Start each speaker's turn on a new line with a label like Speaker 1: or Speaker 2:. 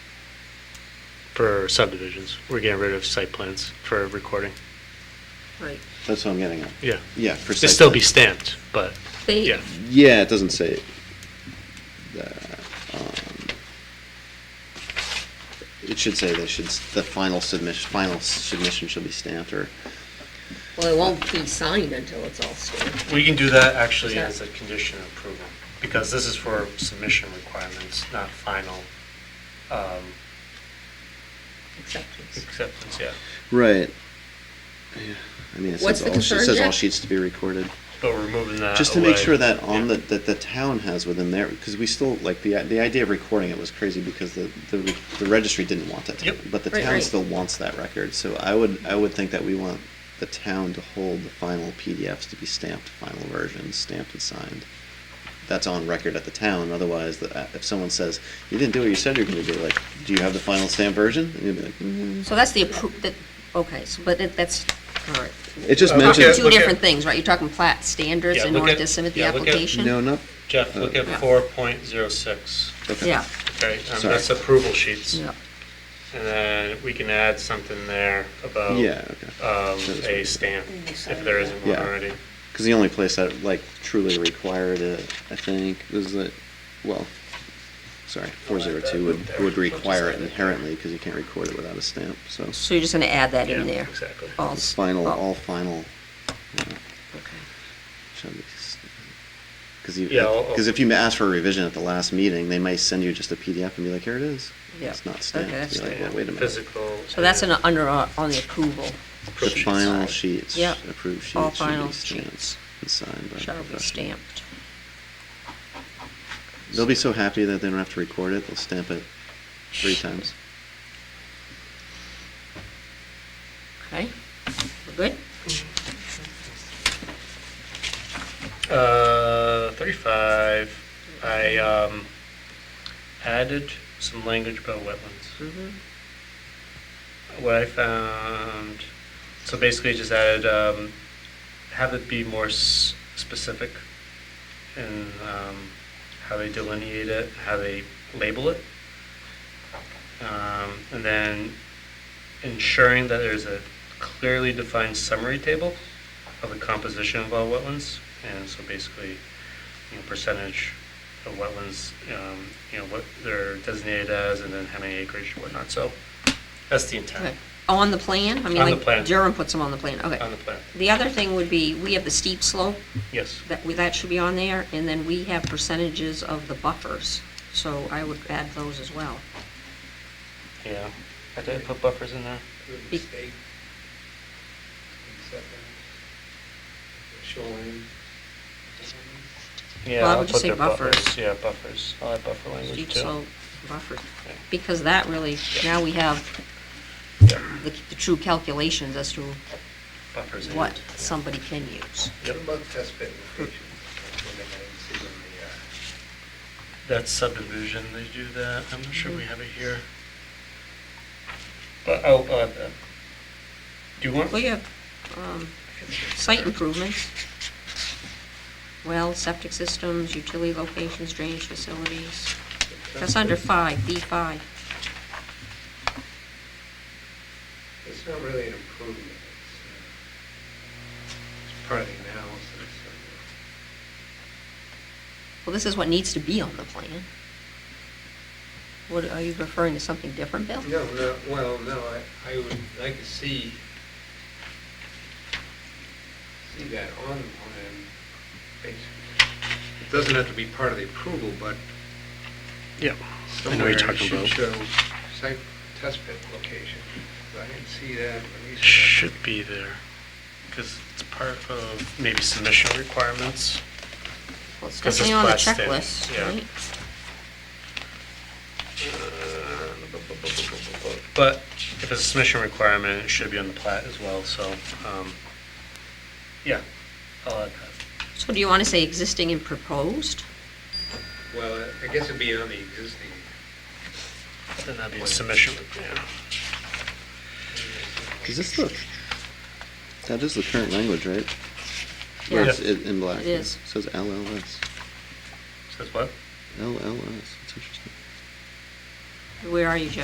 Speaker 1: for subdivisions. We're getting rid of site plans for recording.
Speaker 2: Right.
Speaker 3: That's what I'm getting at.
Speaker 1: Yeah.
Speaker 3: Yeah, for
Speaker 1: It'd
Speaker 3: site
Speaker 1: still
Speaker 3: plan.
Speaker 1: be stamped, but
Speaker 2: They,
Speaker 1: yeah.
Speaker 3: Yeah, it doesn't say it. that. um, It should say they should, s- the final submission, final submission should be stamped or,
Speaker 2: well, it won't be signed until it's all stamped.
Speaker 1: We can do that actually
Speaker 2: Sure.
Speaker 1: as a condition of approval, because this is for submission requirements, not final um,
Speaker 2: acceptance.
Speaker 1: acceptance, yeah.
Speaker 3: right. Yeah, I mean, it
Speaker 2: What's the
Speaker 3: says all, she- it
Speaker 2: concern,
Speaker 3: says all
Speaker 2: Jack?
Speaker 3: sheets to be recorded.
Speaker 1: But we're moving that
Speaker 3: Just to make
Speaker 1: away.
Speaker 3: sure that on
Speaker 1: Yeah.
Speaker 3: the, that the town has within there, because we still, like, the, the idea of recording it was crazy because the, the re- the registry didn't want it.
Speaker 1: Yep.
Speaker 3: But the
Speaker 2: Right,
Speaker 3: town
Speaker 2: right.
Speaker 3: still wants that record, so I would, I would think that we want the town to hold the final PDFs to be stamped, final versions, stamped and signed. That's on record at the town, otherwise, the- uh, if someone says, you didn't do what you said you were gonna do, like, do you have the final stamped version? And you'd be like, "Mm."
Speaker 2: So that's the appro, that, okay, so, but it- that's, all right.
Speaker 3: It just
Speaker 1: Uh, look
Speaker 3: mentions,
Speaker 1: at-
Speaker 2: Two different things, right? You're talking plat standards
Speaker 1: Yeah,
Speaker 2: in
Speaker 1: look
Speaker 2: order
Speaker 1: at-
Speaker 2: to submit the
Speaker 1: yeah, look at-
Speaker 2: application?
Speaker 3: no, not,
Speaker 1: Jeff, look at
Speaker 2: Yeah.
Speaker 1: 4.06,
Speaker 3: okay.
Speaker 2: Yeah,
Speaker 1: okay? um,
Speaker 3: Sorry.
Speaker 1: That's approval sheets.
Speaker 2: yeah.
Speaker 1: And then we can add something there about
Speaker 3: Yeah, okay.
Speaker 1: um,
Speaker 3: That is
Speaker 1: a
Speaker 3: what-
Speaker 1: stamp, if there isn't one
Speaker 3: Yeah.
Speaker 1: already.
Speaker 3: Because the only place that like truly required it, I think, was that, well, sorry, four zero two would would require it inherently because you can't record it without a stamp. So
Speaker 2: So you're just gonna add that
Speaker 1: Yeah,
Speaker 2: in there? Oh,
Speaker 1: Exactly.
Speaker 2: All
Speaker 3: it's
Speaker 2: s-
Speaker 3: final,
Speaker 2: all-
Speaker 3: all final. uh,
Speaker 2: okay.
Speaker 3: Because uh, you,
Speaker 1: Yeah, I'll- I'll-
Speaker 3: because if you ask for a revision at the last meeting, they might send you just a PDF and be like, here it is.
Speaker 2: Yeah.
Speaker 3: It's not stamped.
Speaker 2: Okay, that's
Speaker 3: You're like,
Speaker 2: fine.
Speaker 3: "Well, Wait a minute.
Speaker 1: Physical.
Speaker 2: So that's an,
Speaker 1: and
Speaker 2: under, uh, on the approval,
Speaker 3: The
Speaker 1: approval sheets.
Speaker 3: final
Speaker 2: Sorry.
Speaker 3: sheets,
Speaker 2: Yep.
Speaker 3: approved
Speaker 2: All
Speaker 3: sheets should
Speaker 2: final
Speaker 3: be stamped
Speaker 2: sheets.
Speaker 3: and signed by. the
Speaker 2: shall be
Speaker 3: professional.
Speaker 2: stamped.
Speaker 3: They'll be so happy that they don't have to record it. They'll stamp it three times.
Speaker 2: Okay, we're good?
Speaker 1: Uh, 35, I um, added some language about wetlands.
Speaker 2: Mhm.
Speaker 1: What I found, so basically just added, um, have it be more s- specific in um, how they delineate it, how they label it. Um, And then ensuring that there's a clearly defined summary table of the composition of all wetlands. And so basically, you know, percentage of wetlands, um, you know, what they're designated as, and then how many acreage, whatnot. So that's the
Speaker 2: Okay.
Speaker 1: intent
Speaker 2: On the plan? I mean,
Speaker 1: On the
Speaker 2: like
Speaker 1: plan.
Speaker 2: Durham puts them on the plan,
Speaker 1: on
Speaker 2: okay.
Speaker 1: the plan.
Speaker 2: The other thing would be, we have the steep slope,
Speaker 1: Yes.
Speaker 2: that, we- that should be on there, and then we have percentages of the buffers, so I would add those as well.
Speaker 1: Yeah. I did put buffers in there.
Speaker 2: Be-
Speaker 4: the state, setbacks, shoreline.
Speaker 1: Yeah,
Speaker 2: Well, I
Speaker 1: I'll
Speaker 2: would just
Speaker 1: put
Speaker 2: say
Speaker 1: their
Speaker 2: buffers.
Speaker 1: Yeah, buffers. I'll add buffer language
Speaker 2: Steep
Speaker 1: too.
Speaker 2: slope buffers,
Speaker 1: Yeah.
Speaker 2: because that really, now we have
Speaker 1: Yeah,
Speaker 2: the, the true calculations as to
Speaker 1: Buffers. in.
Speaker 2: what somebody can use.
Speaker 1: Yep.
Speaker 4: What about test pit locations? That's one thing I didn't see in the, uh,
Speaker 1: That's subdivision, they do that. I'm not
Speaker 2: Mm-hmm.
Speaker 1: sure we have it here. But I'll I'll add that. Do you want?
Speaker 2: Well, you have, um, site improvements, well, septic systems, utility locations, drainage facilities. That's under five, B five.
Speaker 4: It's not really an improvement. It's, uh, it's part of the analysis.
Speaker 2: Well, this is what needs to be on the plan. What, are you referring to something different, Bill?
Speaker 4: No, no, well, no, I, I would like to see, see that on the plan. basically. It doesn't have to be part of the approval, but
Speaker 1: Yeah. I know
Speaker 4: somewhere
Speaker 1: what you're
Speaker 4: it
Speaker 1: talking
Speaker 4: should
Speaker 1: about.
Speaker 4: show site test pit location. I didn't see that. at least-
Speaker 1: Should be there, because it's part of maybe submission requirements.
Speaker 2: Well, it's
Speaker 1: 'Cause it's
Speaker 2: definitely on the
Speaker 1: class standard,
Speaker 2: checklist,
Speaker 1: yeah.
Speaker 2: right?
Speaker 1: But if it's a submission requirement, it should be on the plat as well, so, um, yeah, I'll add that.
Speaker 2: So do you want to say existing and proposed?
Speaker 4: Well, I guess it'd be on the existing.
Speaker 1: Then that'd be a submission, yeah.
Speaker 3: Does this look? That is the current language, right?
Speaker 2: Yeah.
Speaker 3: Or it's in in black?
Speaker 2: It is.
Speaker 3: It says LLS.
Speaker 1: Says what?
Speaker 3: LLS, it's interesting.
Speaker 2: Where are you, Jeff?